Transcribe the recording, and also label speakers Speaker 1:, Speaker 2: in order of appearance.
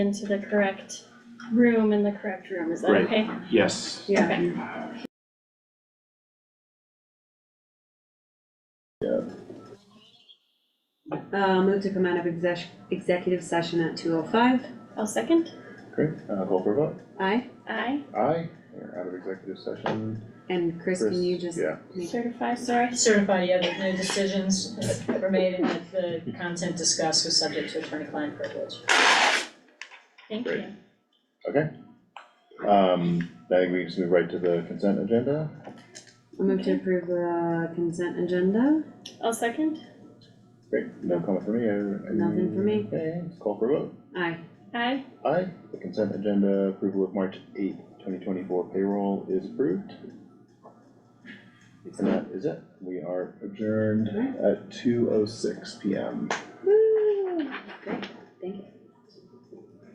Speaker 1: into the correct room in the correct room, is that
Speaker 2: Right.
Speaker 1: okay?
Speaker 2: Yes.
Speaker 1: Okay.
Speaker 3: Uh, move to come out of exec- executive session at two oh five.
Speaker 1: I'll second,
Speaker 4: Great, uh, call for a vote.
Speaker 3: Aye.
Speaker 1: aye,
Speaker 4: Aye, we're out of executive session.
Speaker 3: And Chris,
Speaker 4: Chris,
Speaker 3: can you just?
Speaker 4: yeah.
Speaker 3: make-
Speaker 1: certify, sorry,
Speaker 5: Certified, yeah, that no decisions were made and that the content discussed was subject to attorney-client privilege.
Speaker 1: thank
Speaker 4: Great.
Speaker 1: you.
Speaker 4: Um, I think we just move right to the consent agenda.
Speaker 3: I move to approve the consent agenda.
Speaker 1: I'll second,
Speaker 4: Great, no comment for me. I- I-
Speaker 3: Nothing for me.
Speaker 4: Okay, let's call for a vote.
Speaker 3: Aye.
Speaker 1: aye,
Speaker 4: Aye, the consent agenda approval of March eighth, twenty twenty-four payroll is approved. And that is it. We are adjourned at two oh six P M.
Speaker 3: Woo. Great, thank you.